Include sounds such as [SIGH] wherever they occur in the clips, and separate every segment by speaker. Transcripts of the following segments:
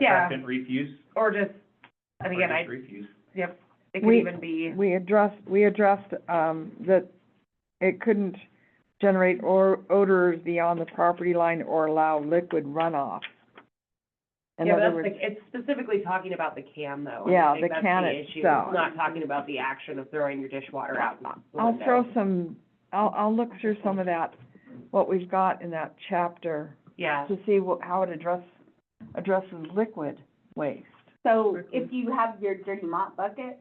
Speaker 1: Yeah.
Speaker 2: attractant refuse.
Speaker 1: Or just, and
Speaker 2: or
Speaker 1: again, I,
Speaker 2: just Refuse.
Speaker 1: yep, it could
Speaker 3: We-
Speaker 1: even be,
Speaker 3: We addressed, we addressed, um, that it couldn't generate or odors beyond the property line or allow liquid runoff. In
Speaker 4: Yeah, but
Speaker 3: other
Speaker 4: that's
Speaker 3: words,
Speaker 4: the, it's specifically talking about the can though. and I
Speaker 3: Yeah,
Speaker 4: think
Speaker 3: the
Speaker 4: that's
Speaker 3: can
Speaker 4: issue.
Speaker 3: itself.
Speaker 4: It's not talking about the action of throwing your dishwater out not the
Speaker 3: I'll
Speaker 4: window.
Speaker 3: throw some, I'll, I'll look through some of that, what we've got in that chapter
Speaker 4: Yeah,
Speaker 3: to see what, how it address, addresses liquid waste.
Speaker 5: So if you have your dirty mop bucket,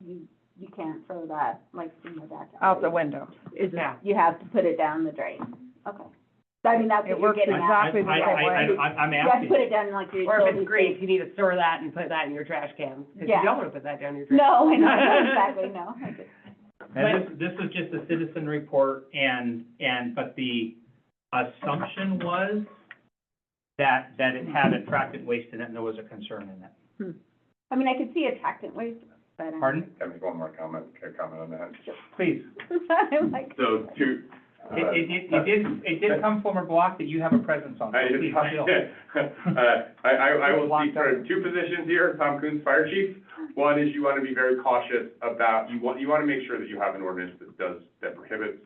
Speaker 5: you, you can't throw that like in the back.
Speaker 3: Out the window.
Speaker 4: yeah.
Speaker 5: You have to put it down the drain. Okay. I mean, that's
Speaker 3: It
Speaker 5: what you're
Speaker 3: works
Speaker 5: getting at.
Speaker 3: exactly the
Speaker 2: I,
Speaker 3: same
Speaker 2: I, I,
Speaker 3: way.
Speaker 2: I, I'm
Speaker 5: You have to
Speaker 2: asking,
Speaker 5: put it down in, like your
Speaker 4: Or if
Speaker 5: utility
Speaker 4: it's grease,
Speaker 5: sink.
Speaker 4: you need to store that and put that in your trash can, because you
Speaker 5: Yeah.
Speaker 4: don't want to put that down your trash.
Speaker 5: No, I know, exactly, no. I get-
Speaker 2: and this, this was just a citizen report and, and, but the assumption was that, that it had attractant waste in it and there was a concern in that.
Speaker 5: I mean, I could see attractant waste, but. um,
Speaker 2: Pardon?
Speaker 6: Can I make one more comment, a comment on that?
Speaker 2: Please.
Speaker 5: [LAUGHS] I'm like,
Speaker 6: So two. uh,
Speaker 2: It, it, did- it did, it did come from a block that you have a presence on, so
Speaker 6: I,
Speaker 2: please, feel.
Speaker 6: [LAUGHS] uh, I, I, I will speak for two positions here, Tom Coons, Fire Chief. One is you want to be very cautious about, you want, you want to make sure that you have an ordinance that does, that prohibits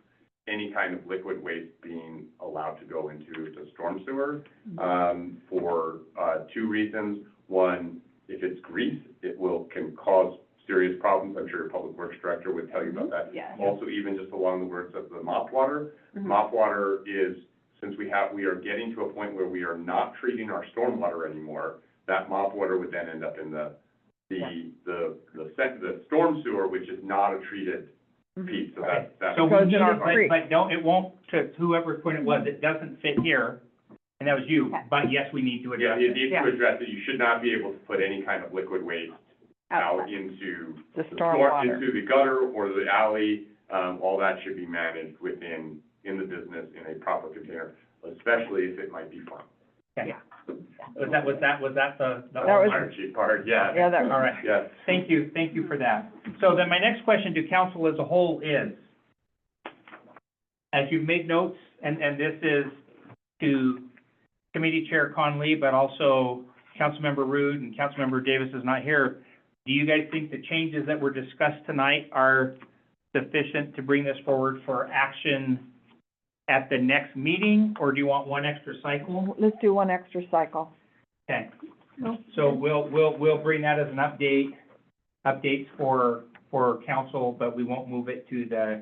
Speaker 6: any kind of liquid waste being allowed to go into the storm sewer, um, for, uh, two reasons. One, if it's grease, it will, can cause serious problems. I'm sure your public works director would tell you about that.
Speaker 5: Yeah.
Speaker 6: Also, even just along the words of the mop water,
Speaker 4: Mhm.
Speaker 6: mop water is, since we have, we are getting to a point where we are not treating our stormwater anymore, that mop water would then end up in the,
Speaker 4: Yeah.
Speaker 6: the, the, the sec, the storm sewer, which is not a treated piece, so
Speaker 2: Right.
Speaker 6: that, that.
Speaker 2: So we
Speaker 3: Goes in
Speaker 2: need
Speaker 3: our
Speaker 2: it,
Speaker 3: creek.
Speaker 2: but, but don't, it won't, to whoever point it was, it doesn't fit here, and that was you,
Speaker 5: Okay.
Speaker 2: but yes, we need to
Speaker 6: Yeah,
Speaker 2: address
Speaker 6: you
Speaker 2: it.
Speaker 6: need
Speaker 4: Yeah.
Speaker 6: to address it, you should not be able to put any kind of liquid waste out
Speaker 5: outside.
Speaker 6: into
Speaker 3: The
Speaker 6: the stor-
Speaker 3: stormwater.
Speaker 6: into the gutter or the alley, um, all that should be managed within, in the business in a proper container, especially if it might be farmed.
Speaker 2: Was that, was that, was that the? the
Speaker 3: That was-
Speaker 6: Fire chief part, yeah,
Speaker 3: Yeah, that,
Speaker 2: All right,
Speaker 6: yes.
Speaker 2: thank you, thank you for that. So then my next question to council as a whole is, as you've made notes, and, and this is to Committee Chair Conley, but also Councilmember Rude and Councilmember Davis is not here, do you guys think the changes that were discussed tonight are sufficient to bring this forward for action at the next meeting, or do you want one extra cycle?
Speaker 3: let's do one extra cycle.
Speaker 2: Okay, so we'll, we'll, we'll bring that as an update, updates for, for council, but we won't move it to the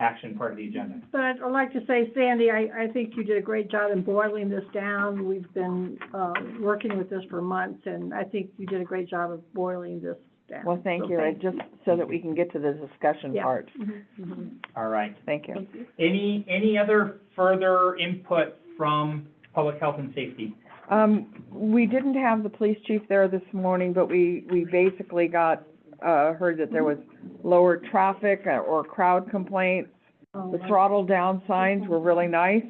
Speaker 2: action part of the agenda.
Speaker 7: But I'd I'd like to say, Sandy, I, I think you did a great job in boiling this down. We've been, uh, working with this for months, and I think you did a great job of boiling this down.
Speaker 3: Well, thank
Speaker 7: So
Speaker 3: you, It just so that we can get to the discussion
Speaker 7: Yeah.
Speaker 3: part.
Speaker 7: Mhm.
Speaker 5: Mm-hmm.
Speaker 2: All right.
Speaker 3: Thank you.
Speaker 2: Any, any other further input from public health and safety?
Speaker 3: Um, we didn't have the police chief there this morning, but we, we basically got, uh, heard that there was lower traffic uh, or crowd complaints.
Speaker 7: Oh,
Speaker 3: The
Speaker 7: I-
Speaker 3: throttle down signs were really nice.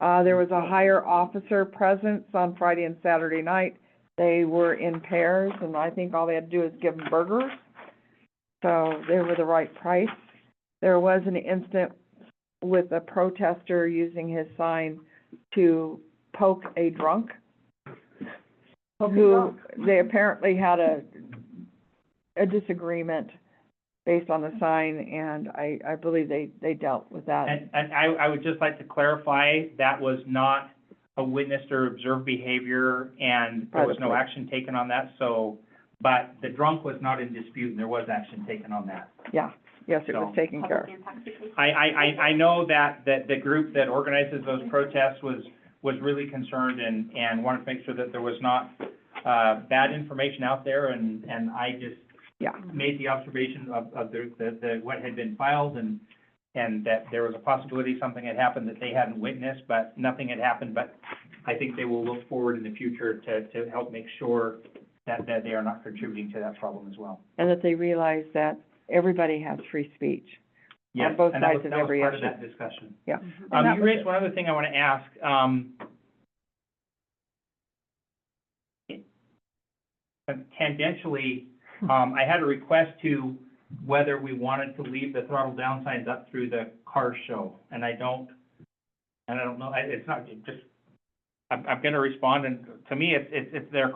Speaker 3: Uh, there was a higher officer presence on Friday and Saturday night. They were in pairs, and I think all they had to do is give them burgers. So they were the right price. There was an incident with a protester using his sign to poke a drunk who, they apparently had a, a disagreement based on the sign, and I, I believe they, they dealt with that.
Speaker 2: And, and I, I would just like to clarify, that was not a witnessed or observed behavior, and there was no
Speaker 3: Right.
Speaker 2: action taken on that, so, but the drunk was not in dispute, and there was action taken on that.
Speaker 3: Yeah, yes, it was taken care of.
Speaker 5: Public intoxication.
Speaker 2: I, I, I, I know that, that the group that organizes those protests was, was really concerned and, and wanted to make sure that there was not, uh, bad information out there, and, and I just
Speaker 3: Yeah.
Speaker 2: made the observation of, of the, the, the, what had been filed, and, and that there was a possibility something had happened that they hadn't witnessed, but nothing had happened, but I think they will look forward in the future to, to help make sure that, that they are not contributing to that problem as well.
Speaker 3: And that they realize that everybody has free speech.
Speaker 2: Yes,
Speaker 3: both
Speaker 2: and that
Speaker 3: sides
Speaker 2: was-
Speaker 3: of
Speaker 2: that was
Speaker 3: every
Speaker 2: part of
Speaker 3: issue.
Speaker 2: that discussion.
Speaker 3: Yeah.
Speaker 2: Um,
Speaker 3: And that
Speaker 2: you
Speaker 3: was
Speaker 2: raised
Speaker 3: it.
Speaker 2: one other thing I want to ask, um, tangentially, um, I had a request to whether we wanted to leave the throttle down signs up through the car show, and I don't, and I don't know, I, it's not, it just, I'm, I'm gonna respond, and to me, it's, it's, it's their